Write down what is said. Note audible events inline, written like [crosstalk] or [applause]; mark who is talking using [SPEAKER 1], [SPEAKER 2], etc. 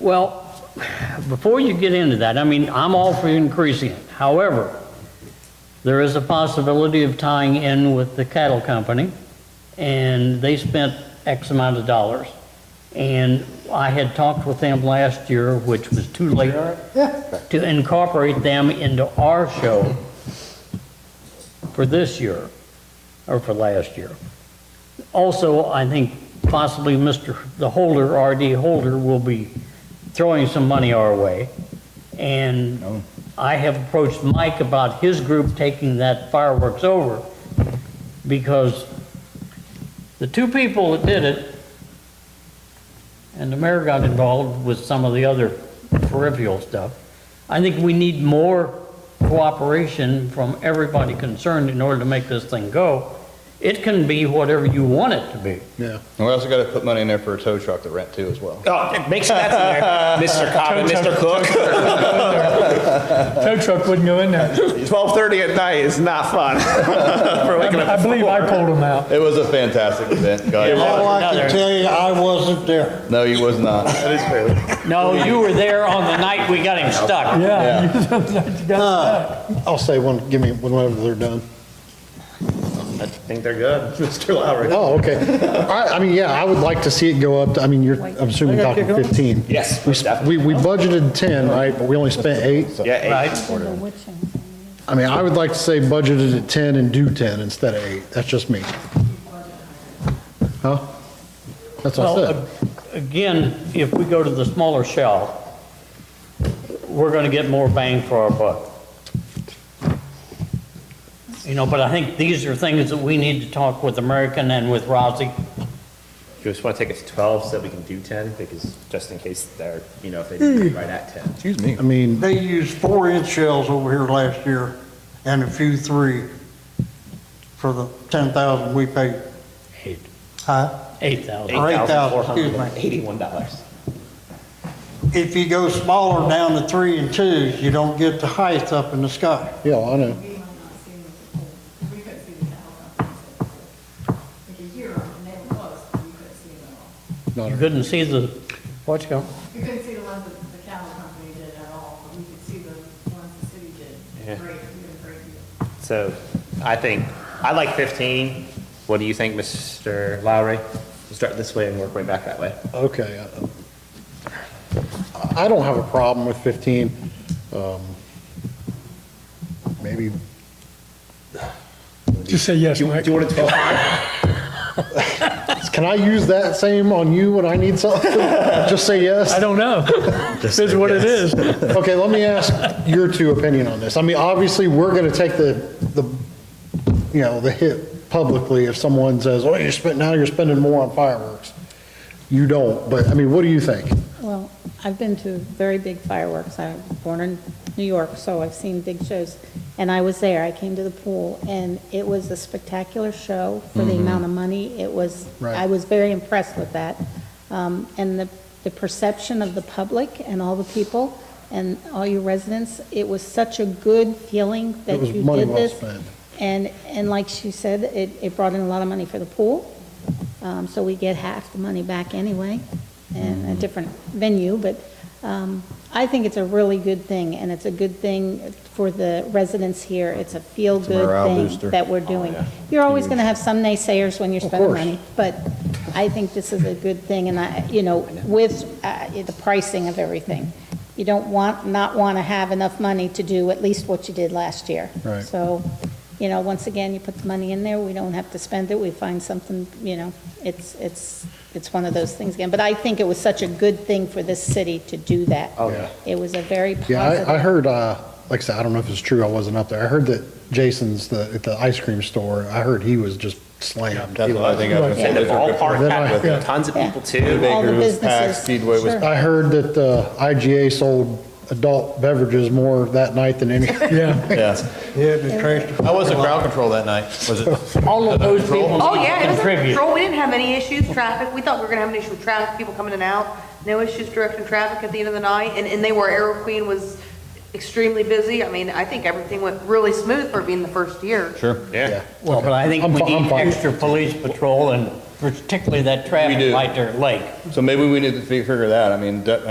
[SPEAKER 1] Well, before you get into that, I mean, I'm all for increasing it. However, there is a possibility of tying in with the cattle company, and they spent X amount of dollars. And I had talked with them last year, which was too late, to incorporate them into our show for this year, or for last year. Also, I think possibly Mr. the Holder, R.D. Holder, will be throwing some money our way. And I have approached Mike about his group taking that fireworks over because the two people that did it, and the mayor got involved with some of the other peripheral stuff, I think we need more cooperation from everybody concerned in order to make this thing go. It can be whatever you want it to be.
[SPEAKER 2] And we also got to put money in there for a tow truck to rent too as well.
[SPEAKER 3] Oh, make sure [laughs] that's in there, Mr. Cobb and Mr. Cook.
[SPEAKER 4] Tow truck wouldn't go in there.
[SPEAKER 3] 12:30 at night is not fun. [laughs] For waking up
[SPEAKER 4] I
[SPEAKER 3] at
[SPEAKER 4] believe I
[SPEAKER 3] four.
[SPEAKER 4] pulled
[SPEAKER 2] [laughs]
[SPEAKER 4] them out.
[SPEAKER 2] It was a fantastic event, guys.
[SPEAKER 5] All I can tell you, I wasn't there.
[SPEAKER 2] No, you was not. That is fair.
[SPEAKER 1] No, you were there on the night we got him stuck.
[SPEAKER 4] Yeah. You got [laughs] that.
[SPEAKER 5] I'll say one, give me one whenever they're done.
[SPEAKER 3] I think they're good, [laughs] Mr. Lowry.
[SPEAKER 5] Oh, okay. I, I mean, yeah, I would like to see it go up, to- I mean, you're, I'm assuming you're talking 15.
[SPEAKER 3] Yes,
[SPEAKER 5] We, sp- we we budgeted 10, right, but we only spent eight.
[SPEAKER 3] Yeah, eight.
[SPEAKER 5] I mean, I would like to say budgeted at 10 and do 10 instead of eight. That's just me. Huh? That's what I
[SPEAKER 1] Well,
[SPEAKER 5] said.
[SPEAKER 1] a- again, if we go to the smaller shell, we're gonna get more bang for our buck. You know, but I think these are things that we need to talk with American and with Rousey.
[SPEAKER 3] You just want to take it to 12 so we can do 10, because just in case they're, you know, if they
[SPEAKER 2] Hmm.
[SPEAKER 3] didn't get right at 10.
[SPEAKER 2] Excuse me.
[SPEAKER 5] I mean,
[SPEAKER 6] They used four-inch shells over here last year and a few three for the 10,000 we paid.
[SPEAKER 1] Eight.
[SPEAKER 6] Huh?
[SPEAKER 1] Eight thousand.
[SPEAKER 6] Or 8,000, excuse
[SPEAKER 3] $81.
[SPEAKER 6] If you go smaller down to three and twos, you don't get the height up in the sky.
[SPEAKER 5] yeah, I
[SPEAKER 7] We
[SPEAKER 5] know.
[SPEAKER 7] have not seen the, we couldn't see the tower. Like a year, and they were close, but we couldn't see them at all.
[SPEAKER 1] You couldn't see the, what's going?
[SPEAKER 7] We couldn't see the ones that the cattle company did at all, but we could see the ones the city
[SPEAKER 3] Yeah.
[SPEAKER 7] did. Great, we did a great deal.
[SPEAKER 3] So I think, I like 15. What do you think, Mr. Lowry? We'll Start this way and work way back that way.
[SPEAKER 5] Okay. uh, I I don't have a problem with 15. Um, Maybe,
[SPEAKER 4] Just say yes, Mike.
[SPEAKER 3] Do you want to 12?
[SPEAKER 5] can I use that same on you when I need something? [laughs] Just say yes?
[SPEAKER 4] I don't
[SPEAKER 3] [laughs]
[SPEAKER 4] know. This is what it is.
[SPEAKER 5] Okay, let me ask your two opinion on this. I mean, obviously, we're going to take the, the, you know, the hit publicly if someone says, oh, you're spending, now you're spending more on fireworks. You don't, but, I mean, what do you think?
[SPEAKER 8] Well, I've been to very big fireworks. I was born in New York, so I've seen big shows. And I was there, I came to the pool, and it was a spectacular show for the amount of money. It was,
[SPEAKER 5] Mm-hmm. Right.
[SPEAKER 8] I was very impressed with that. Um, And the, the perception of the public and all the people and all your residents, it was such a good feeling that
[SPEAKER 5] It was
[SPEAKER 8] you
[SPEAKER 5] money
[SPEAKER 8] did
[SPEAKER 5] well
[SPEAKER 8] this.
[SPEAKER 5] spent.
[SPEAKER 8] And, and like she said, it, it brought in a lot of money for the pool, um, so we get half the money back anyway, and a different venue, but, um, I think it's a really good thing, and it's a good thing for the residents here, it's a
[SPEAKER 2] morale
[SPEAKER 8] feel-good
[SPEAKER 2] booster.
[SPEAKER 8] thing that we're doing. You're always gonna have some naysayers when you're spending
[SPEAKER 5] course.
[SPEAKER 8] money, but I think this is a good thing, and I, you know, with, uh, the pricing of everything, you don't want, not wanna have enough money to do at least what you did last year.
[SPEAKER 5] Right.
[SPEAKER 8] So, you know, once again, you put the money in there, we don't have to spend it, we find something, you know, it's, it's, it's one of those things again. But I think it was such a good thing for this city to do that.
[SPEAKER 3] Oh, yeah.
[SPEAKER 8] It was a very
[SPEAKER 5] Yeah, I, I
[SPEAKER 8] positive.
[SPEAKER 5] heard, uh, like I said, I don't know if it's true, I wasn't up there. I heard that Jason's, the, at the ice cream store, I heard he was just slammed.
[SPEAKER 2] That's what I think I was
[SPEAKER 3] And
[SPEAKER 2] going
[SPEAKER 3] the
[SPEAKER 2] to
[SPEAKER 3] ballpark
[SPEAKER 5] Then
[SPEAKER 3] packed
[SPEAKER 5] I-
[SPEAKER 3] with tons of
[SPEAKER 8] Yeah.
[SPEAKER 3] people too.
[SPEAKER 8] All the
[SPEAKER 2] Baker's packed,
[SPEAKER 8] businesses.
[SPEAKER 2] Speedway was
[SPEAKER 8] Sure.
[SPEAKER 5] I heard that, uh, IGA sold adult beverages more that night than any.
[SPEAKER 4] Yeah.
[SPEAKER 2] Yeah.
[SPEAKER 6] Yeah, the trash.
[SPEAKER 2] How was the crowd control that night? Was it?
[SPEAKER 1] All of those people
[SPEAKER 9] Oh, yeah, it was under
[SPEAKER 1] contribute.
[SPEAKER 9] control. We didn't have any issues, traffic. We thought we were gonna have an issue with traffic, people coming in and out. No issues directing traffic at the end of the night, and, and they were, Arrow Queen was extremely busy. I mean, I think everything went really smooth for being the first year.
[SPEAKER 2] Sure.
[SPEAKER 3] Yeah.
[SPEAKER 1] Well, but I think
[SPEAKER 5] I'm
[SPEAKER 1] we
[SPEAKER 5] fi- I'm
[SPEAKER 1] need
[SPEAKER 5] fine.
[SPEAKER 1] extra police patrol and particularly that
[SPEAKER 2] We do.
[SPEAKER 1] traffic light there at Lake.
[SPEAKER 2] So maybe we need to fi- figure that. I mean, de-